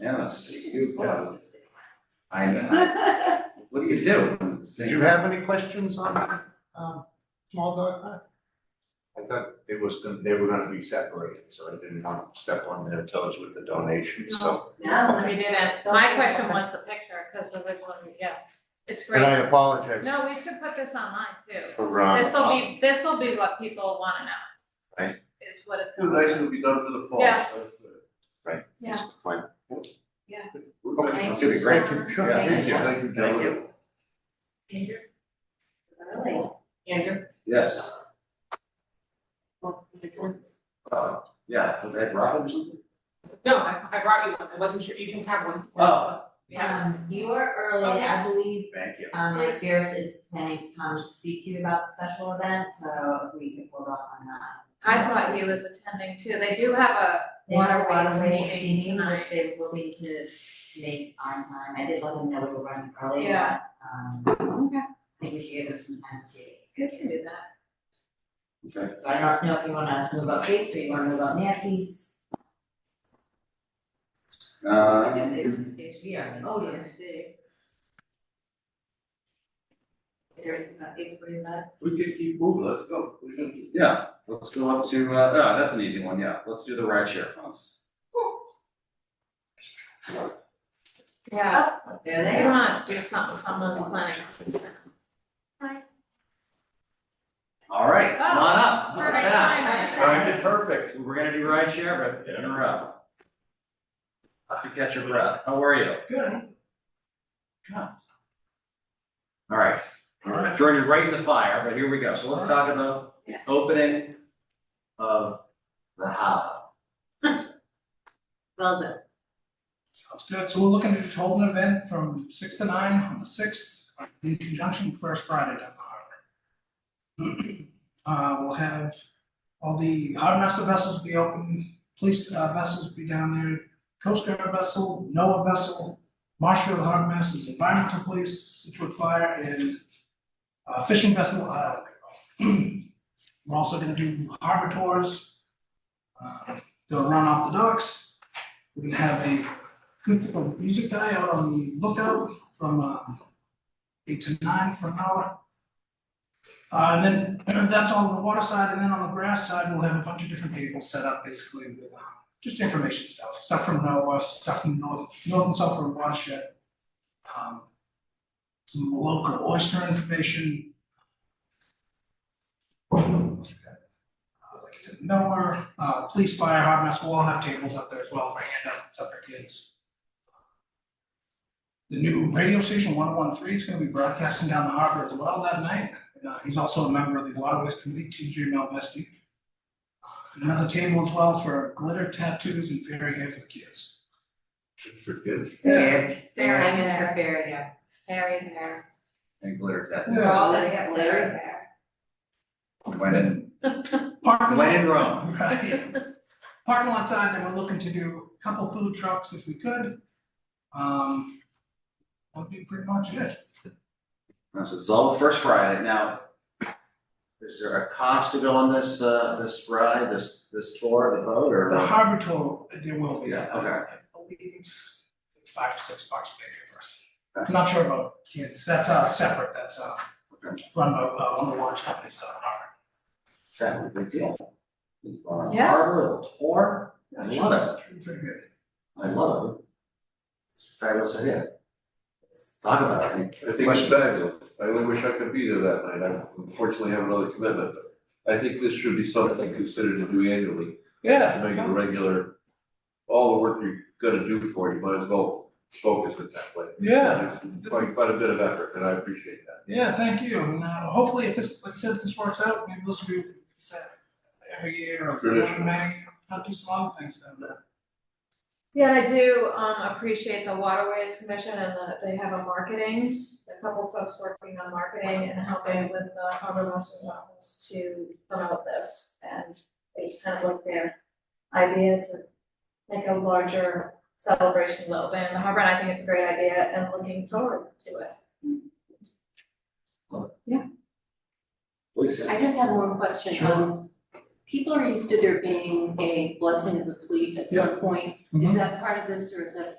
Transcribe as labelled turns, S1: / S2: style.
S1: Unanimous. You go. I know. What do you do? when it's the
S2: Did
S1: same-
S2: you have any questions on, um, small dog park? I thought it was, gonna- they were gonna be separated, so I didn't want to step on their toes with the donation, so.
S3: No, we didn't. My question was the picture, because the original, yeah, it's
S2: And I
S3: great.
S2: apologize
S3: No, we should put this online too.
S2: for, um,
S3: This will be, this will be what people want to know.
S2: Right.
S3: Is what it's.
S4: Two
S3: gonna be.
S4: nice will be done for the fall.
S3: Yeah.
S4: so- uh,
S2: right,
S3: Yeah.
S2: just fine.
S4: Okay,
S2: Thank
S4: that's
S2: you
S4: it.
S2: so Thank you. much. Sure,
S4: Yeah,
S2: thank you.
S4: Thank you,
S1: Thank
S4: gentlemen.
S1: you.
S3: Andrew?
S5: Really?
S3: Andrew?
S1: Yes,
S5: Well, the ones.
S1: uh, yeah, was that Robin or something?
S6: No, I, I brought you one, I wasn't sure, you can have one.
S1: Oh.
S6: Yeah.
S5: Um, you were early, I believe,
S1: Thank you.
S5: um, Mike Sears is planning to come to speak to you about the special event, so if we could hold off on that.
S3: I thought he was attending too. They do have a
S5: They have a
S3: waterways
S5: waterway
S3: meeting
S5: meeting,
S3: tonight.
S5: which they will need to make on time, I did let them know we were running early, but,
S3: Yeah.
S5: um,
S3: Okay.
S5: I think we should give them some time to see.
S3: Good can do that.
S1: Okay.
S5: So I don't know if you wanna move up Kate's or you wanna move up Nancy's.
S1: Uh,
S5: She already. Oh, yeah, see.
S4: We can keep moving, let's go. We can-
S1: yeah, let's go up to, uh, oh, that's an easy one, yeah, let's do the ride share funds.
S3: Yeah.
S5: Oh, there they
S3: They
S5: are.
S3: want to do something, someone's planning.
S1: All right, come on up, look
S3: Perfect
S1: at that.
S3: timing.
S1: Timed it perfect, we're gonna do ride share, but in a row. Have to catch your breath, how are you?
S4: Good.
S1: All right,
S4: All right.
S1: Jordan, you're right in the fire, but here we go, so let's talk about the opening of the hub.
S5: Well done.
S7: Sounds good, so we're looking to just hold an event from six to nine on the sixth, in conjunction with First Friday down the harbor. Uh, we'll have all the harbor master vessels be open, police uh, vessels be down there, Coast Guard vessel, NOAA vessel, Marshfield Harbor Masters, Environmental Police, Situate Fire, and uh, fishing vessel, uh, we're also gonna do harbor tours, uh, they'll run off the docks. We're gonna have a acoustical music guy out on the lookout from um, eight to nine for an hour. Uh, and then that's on the water side, and then on the grass side, we'll have a bunch of different tables set up, basically with um, just information stuff, stuff from NOAA, stuff from North, Northern Sulphur Watershed. Um, some local oyster information. Uh, Like I said, NOAA, uh, police, fire, harbor master, we'll all have tables up there as well, bring it up, it's up for kids. The new radio station, one oh one three, is gonna be broadcasting down the harbor as well that night. And, uh, he's also a member of the Waterways Committee, TJ Malvesti. Uh, Another table as well for glitter tattoos and fairy hair for the kids.
S2: For kids.
S5: There.
S3: There,
S5: I'm
S3: there.
S5: prepared, yeah.
S3: Harry there.
S1: And glitter tattoo,
S7: Yeah.
S3: all gonna get Larry
S5: there.
S1: when in,
S7: Parking
S1: when
S7: lot,
S1: in Rome.
S7: right? Parking lot side, then we're looking to do a couple food trucks if we could. Um, that would be pretty much it.
S1: This is all the first Friday. Now, is there a cost to go on this, uh, this ride, this, this tour of the boat or?
S7: The harbor tour, there will be.
S1: Yeah, okay.
S7: I believe it's five to six bucks per person. I'm not sure about kids, that's uh separate, that's uh run by uh one of the watch companies down in
S1: That would be a big deal. It's on the
S3: Yeah.
S1: Harbor, a tour. I love
S7: Harvard. Pretty good.
S1: it. I love it. It's a fabulous idea. Let's Talk about it. Any
S4: I think it's
S1: questions?
S4: fabulous. I really wish I could be there that night. I unfortunately have another commitment, but I think this should be something considered to do annually. To make it a regular, all the work you're gonna do for it, you might as well focus it that way.
S7: Yeah,
S4: It's Quite, quite a bit of effort, and I appreciate that.
S7: yeah, thank you, and uh hopefully if this, like I said, if this works out, maybe this will be set every year or
S4: Traditional.
S7: maybe I'll do some other things uh, down there.
S3: Yeah, and I do, um, appreciate the Waterways Commission and that they have a marketing, a couple folks working on marketing and helping with the harbor master's office to promote this. And it was kind of like their idea to make a larger celebration of the open in the harbor, and I think it's a great idea and looking forward to it.
S1: Please.
S8: I just have one question.
S7: Sure.
S8: Um, People are used to there being a blessing of the fleet at some point. Is that part of this or is that